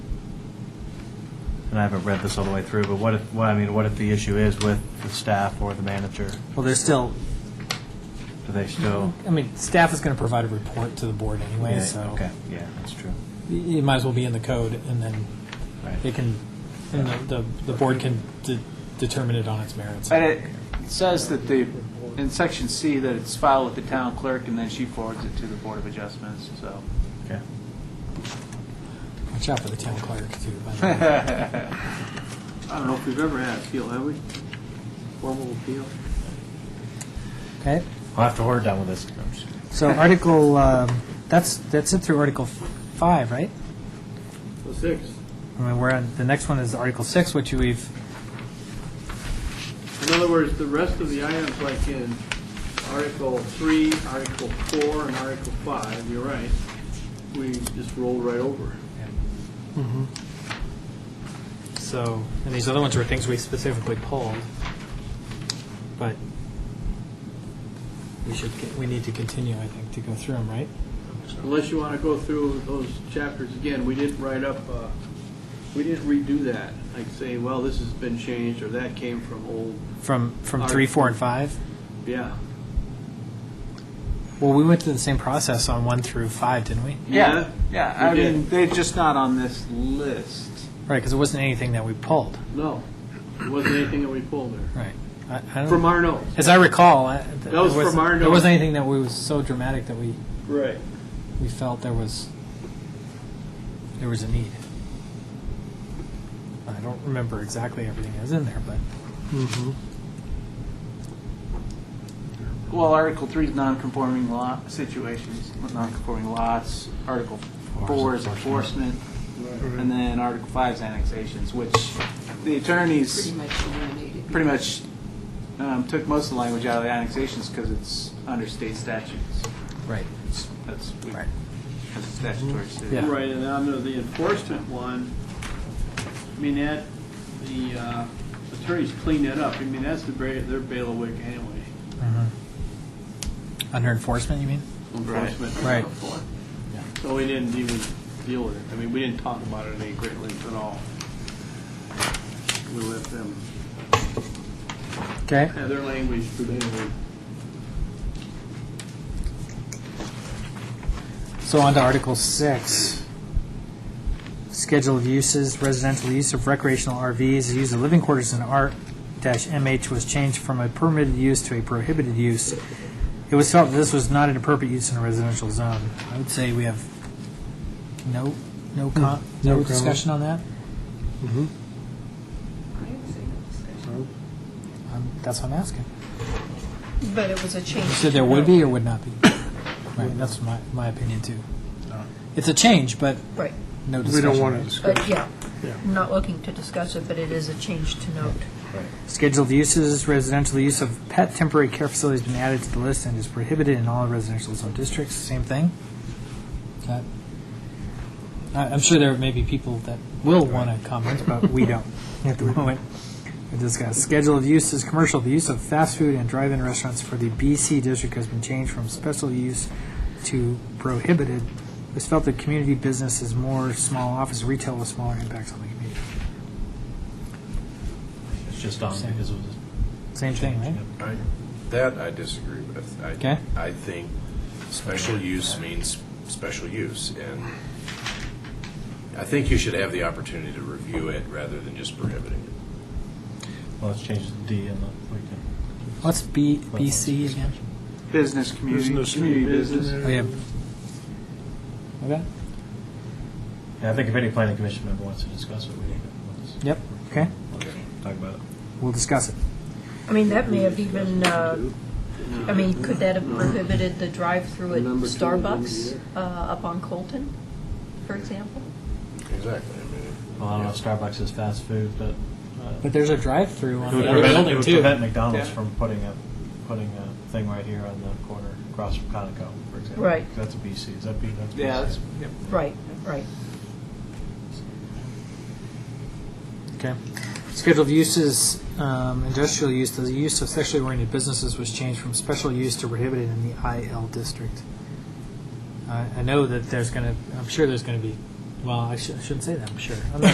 and I haven't read this all the way through, but what if, what, I mean, what if the issue is with the staff or the manager? Well, there's still, Do they Mm-hmm. still? I mean, staff is going to provide a report to the board anyway, Oh. Yeah, so Okay, yeah, that's true. y- it might as well be in the code, and then Right. it can, and the, the the board can de- determine it on its merits. And it says that the, in section C, that it's filed with the town clerk, and then she forwards it to the Board of Adjustments, so. Okay. Watch out for the town clerk, too. by the way. I don't know if we've ever had appeal, have we? Formal appeal? Okay? Well, after we're done with this, I'm just- So Article, um, that's, that's it through Article 5, right? Six. I mean, we're on, the next one is Article 6, which we've, In other words, the rest of the items, like in Article 3, Article 4, and Article 5, you're right, we just rolled right over. so, and these other ones were things we specifically pulled, but we should, get- we need to continue, I think, to go through them, right? Unless you want to go through those chapters again, we didn't write up, uh, we didn't redo that, like say, well, this has been changed, or that came from old, From, from 3, 4, and 5? yeah. Well, we went through the same process on 1 through 5, didn't we? Yeah, yeah, I We did. mean, they're just not on this list. Right, because it wasn't anything that we pulled, No, it wasn't anything that we pulled there, right? I- I don't- from our notes. As I recall, I- th- That was there from our There notes. wasn't anything that we was so dramatic that we, Right. we felt there was, there was a need. I don't remember exactly everything that was in there, but, Well, Article Three is non-conforming lot, situations, non-conforming lots. Article Four is enforcement, and then Article Five is annexations, which the attorneys pretty much eliminated. pretty much um, took most of the language out of the annexations because it's under state statutes. right. It's- That's, we- Right. that's a statutory Yeah. state. Right, and under the enforcement one, I mean, that, the uh, attorneys clean that up. I mean, that's the ba- their bailiwick anyway, Mm-hmm. Under enforcement, you mean? enforcement. Right. So we didn't even deal with it. I mean, we didn't talk about it in any great length at all. We let them Okay. have their language prevail. So on to Article 6. Schedule of uses, residential use of recreational RVs, the use of living quarters in R-MH was changed from a permitted use to a prohibited use. It was felt that this was not an appropriate use in a residential zone. I would say we have no, no con, Hmm. no discussion on that? I didn't say no discussion. Um, That's what I'm asking. But it was a change. You said there would be or would not be? Right, that's my, my opinion too. It's a change, but Right, no We discussion. don't want right? to discuss. but yeah, not looking to discuss it, but it is a change to note. Scheduled uses, residential use of pet temporary care facility has been added to the list and is prohibited in all residential zone districts, same thing. Okay. I- I'm sure there may be people that will want to comment, but we don't at the moment. We discuss schedule of uses, commercial, the use of fast food and drive-in restaurants for the BC district has been changed from special use to prohibited. It was felt that community business is more small office retail with smaller impacts on the community. It's just on because it was. Same thing, right? I- That I disagree with. I- Okay. I think special use means special use, and I think you should have the opportunity to review it rather than just prohibiting it. Well, let's change the D and the, we can. What's B, BC again? Business, community, Business, community business. Oh, yeah. Okay, Yeah, I think if any planning commission member wants to discuss it, we need to. let's- yep, okay, Talk about it. we'll discuss it. I mean, that may have even, uh, I mean, could that have prohibited the drive-through at Number two, Starbucks uh, up on Colton, for example? Exactly. I mean, Well, I don't know, if Starbucks is fast food, but. uh, But there's a drive-through It on would the other prevent, it building would too. prevent McDonald's Yeah. from putting a, putting a thing right here on the corner across from Conoco, for example. Right. That's a BC, is that B? that's BC. Yeah, that's, yeah. Right, right. Okay. Scheduled uses, um, industrial use, the use of sexually oriented businesses was changed from special use to prohibited in the IL district. I, I know that there's gonna, I'm sure there's gonna be, well, I shou- I shouldn't say that, I'm sure. I'm not